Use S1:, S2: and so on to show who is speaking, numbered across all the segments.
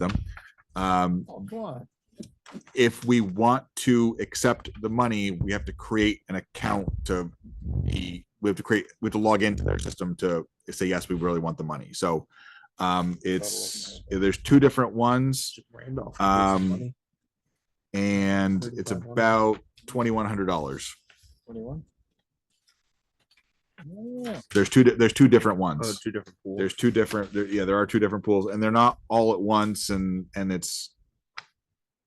S1: them. Um,
S2: What?
S1: if we want to accept the money, we have to create an account to be, we have to create, we have to log into their system to say, yes, we really want the money. So um, it's, there's two different ones
S2: Randolph.
S1: Um, and it's
S2: 3500.
S1: about twenty-one hundred dollars.
S2: Twenty-one?
S1: There's two, di- there's two different
S2: Oh,
S1: ones.
S2: two different pools.
S1: There's two different, there, yeah, there are two different pools and they're not all at once and, and it's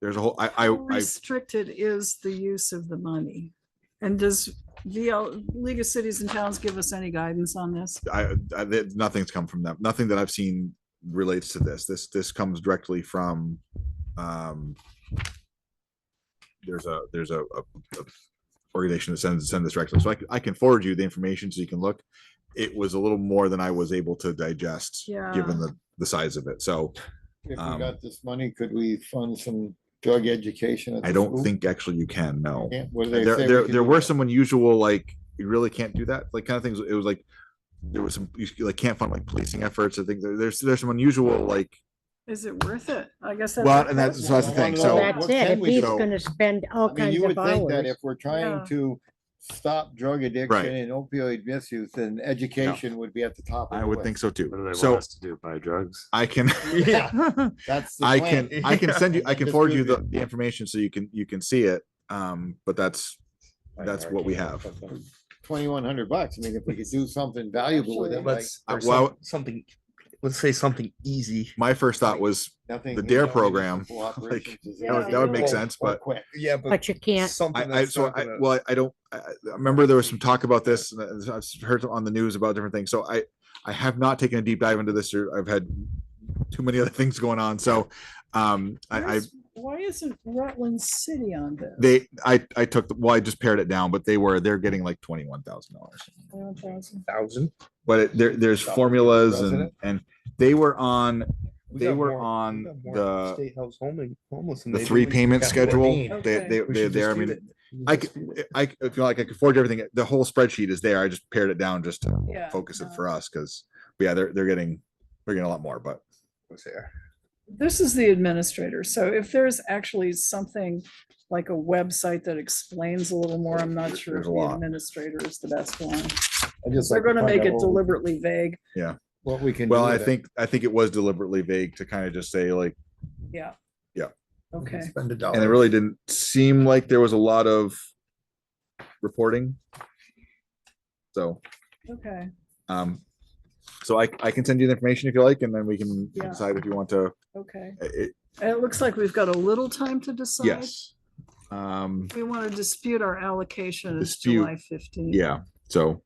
S1: there's a whole, I, I,
S3: How
S1: I,
S3: Restricted is the use of the money. And does VL, League of Cities and Towns give us any guidance on this?
S1: I, I there- nothing's come from them. Nothing that I've seen relates to this. This this comes directly from um there's a there's a, a, a organization that sends send this directly. So I, c- I can forward you the information so you can look. It was a little more than I was able to digest given
S3: Yeah.
S1: the the size of it. So
S4: If
S1: Um,
S4: we got this money, could we fund some drug education? at
S1: I
S4: the
S1: don't
S4: school?
S1: think actually you can no.
S4: Can't- what do they
S1: There
S4: say we
S1: there,
S4: can
S1: there
S4: do?
S1: were some unusual like you really can't do that like kind of things. It was like there was some you like can't fund like policing efforts. I think there, there's there's some unusual like
S3: Is it worth it? I guess. that's
S1: Well,
S3: the
S1: and that's, so
S3: question.
S1: that's the thing,
S4: Well,
S1: so,
S4: that-
S5: That's
S4: what
S5: it,
S4: can
S5: if
S4: we
S5: he's
S1: do?
S5: gonna spend all
S4: I mean,
S5: kinds
S4: you would
S5: of
S4: think that
S5: hours.
S4: if we're
S3: Yeah.
S4: trying to stop drug addiction and opioid misuse, then education would be at the top. of
S1: I
S4: the
S1: would
S4: list.
S1: think so too.
S6: What do they want
S1: So
S6: us to do? Buy drugs?
S1: I can,
S4: Yeah, That's. the
S1: I
S4: plan.
S1: can, I can send you, I can forward you the,
S4: Distribute.
S1: the information so you can, you can see it. Um, but that's, that's what we have.
S4: Twenty-one hundred bucks. I mean, if we could do something valuable with it, like
S2: Let's,
S1: Uh,
S2: or
S1: well-
S2: some- something, let's say something easy.
S1: my first thought was,
S4: nothing.
S1: the DARE
S4: no
S1: program,
S4: municipal operations is
S1: that would, that would make
S4: or-
S1: sense,
S4: or
S1: but
S4: quick.
S2: Yeah,
S5: But you can't,
S2: something
S1: I, I,
S2: that's
S1: so
S2: not
S1: I,
S2: gonna-
S1: well, I don't, I, I remember there was some talk about this and I- I've heard on the news about different things. So I, I have not taken a deep dive into this or I've had too many other things going on. So, um, I, I,
S3: Where's- Why isn't Rutland City on this?
S1: they, I, I took, the well, I just pared it down, but they were, they're getting like twenty-one thousand dollars.
S2: Thousand.
S1: but it, there, there's
S4: Stop.
S1: formulas and,
S4: President?
S1: and they were on,
S2: We
S1: they
S2: got
S1: were
S2: more- we
S1: on
S2: got more
S1: the-
S2: State house homely- homeless. than
S1: the
S2: they do
S1: three
S2: in
S1: payment
S2: California.
S1: schedule. They,
S3: Okay.
S1: they,
S2: We
S1: they're there. I
S2: should just
S1: mean,
S2: do that. We
S1: I
S2: just
S1: c-
S2: do it.
S1: I, c- I feel like I could forge everything. The whole spreadsheet is there. I just pared it down just to
S3: Yeah,
S1: focus it
S3: uh,
S1: for us. Cause but yeah, they're, they're getting, they're getting a lot more, but
S2: Was there.
S3: This is the administrator. So if there's actually something like a website that explains a little more, I'm not sure if
S1: There's a
S3: the
S1: lot.
S3: administrator is the best one.
S4: I just like to
S3: They're gonna
S4: find
S3: make
S4: out
S3: it
S4: what we-
S3: deliberately vague.
S4: What we can.
S1: well,
S4: do
S1: I
S4: with it.
S1: think, I think it was deliberately vague to kind of just say like,
S3: Yeah.
S1: Yeah.
S2: We can
S3: Okay.
S2: Spend a
S1: and it
S2: dollar.
S1: really didn't seem like there was a lot of reporting. So.
S3: Okay.
S1: Um, so I, I can send you the information if you like, and then we can
S3: Yeah.
S1: decide if you want to,
S3: Okay.
S1: it,
S3: And It looks like we've got a little time to decide.
S1: yes. Um,
S3: We want to dispute our allocation is
S1: Dispute,
S3: July fifteenth.
S1: yeah, so,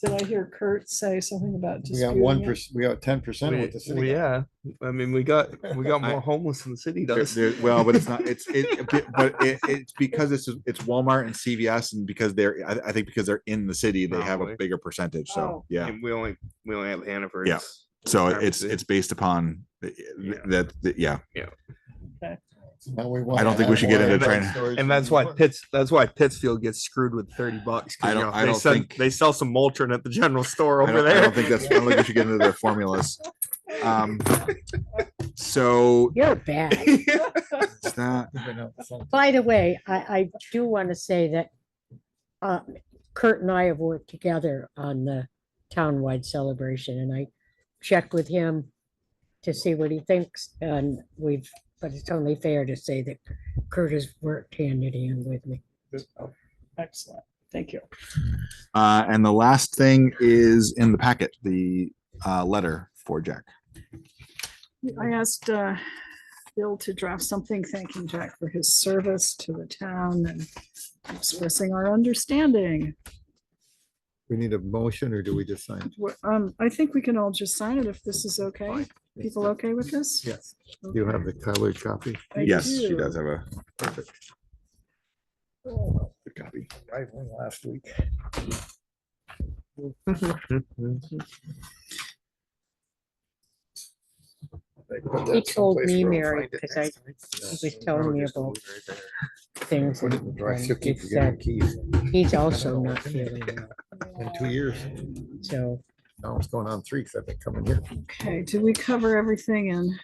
S3: Did I hear Kurt say something about
S4: We got one
S3: disputing it?
S4: percent, we got ten percent
S2: We-
S4: with the
S2: we-
S4: city.
S2: Yeah, I mean, we got, we got
S1: I-
S2: more homeless than the city
S1: there-
S2: does.
S1: there- well, but it's not, it's, it, it- but it, it's because it's, it's Walmart and CVS and because they're, I, I think because they're in the city, they have a
S2: Probably.
S1: bigger percentage, so,
S3: Oh.
S1: yeah.
S2: And we only, we only have Hannaford.
S1: Yeah. So it's,
S2: Pharmacy.
S1: it's based upon th-
S2: Yeah.
S1: that, that- yeah,
S4: Now we want
S1: I don't
S4: to
S1: think we
S4: have
S1: should get
S4: more
S1: into
S4: drug
S1: trying-
S4: stores
S2: And
S4: than
S2: that's why
S4: before.
S2: Pitts, that's why Pittsfield gets screwed with thirty bucks. 'cause,
S1: I
S2: you
S1: don't-
S2: know,
S1: I
S2: they
S1: don't
S2: sell-
S1: think-
S2: They sell some Moltron at the general store
S1: I
S2: over
S1: don't, I don't
S2: there.
S1: think that's, I don't think we should get into their formulas.
S4: Uh,
S1: Um, so,
S5: you're bad.
S1: it's not,
S4: Even up something.
S5: By the way, I, I do want to say that uh, Kurt and I have worked together on the townwide celebration and I checked with him to see what he thinks and we've, but it's only fair to say that Kurt has worked hand in hand with me.
S3: Excellent. Thank you.
S1: Uh, and the last thing is in the packet, the uh, letter for Jack.
S3: I asked uh, Bill to draft something thanking Jack for his service to the town and expressing our understanding.
S4: We need a motion or do we just sign?
S3: Wha- um, I think we can all just sign it if this is okay. People okay with this?
S4: Yes. You have the colored copy?
S3: I do.
S1: have a perfect
S2: Oh,
S1: good copy.
S2: I went Last week.
S5: He told me, Mary, because I he was telling me about things.
S4: Put it in the drive, she'll
S5: that he
S4: keep forgetting
S5: said.
S4: the keys.
S5: He's also not feeling well,
S4: In two years,
S5: so.
S4: now it's going on three, because I've been coming here.
S3: Okay, did we cover everything in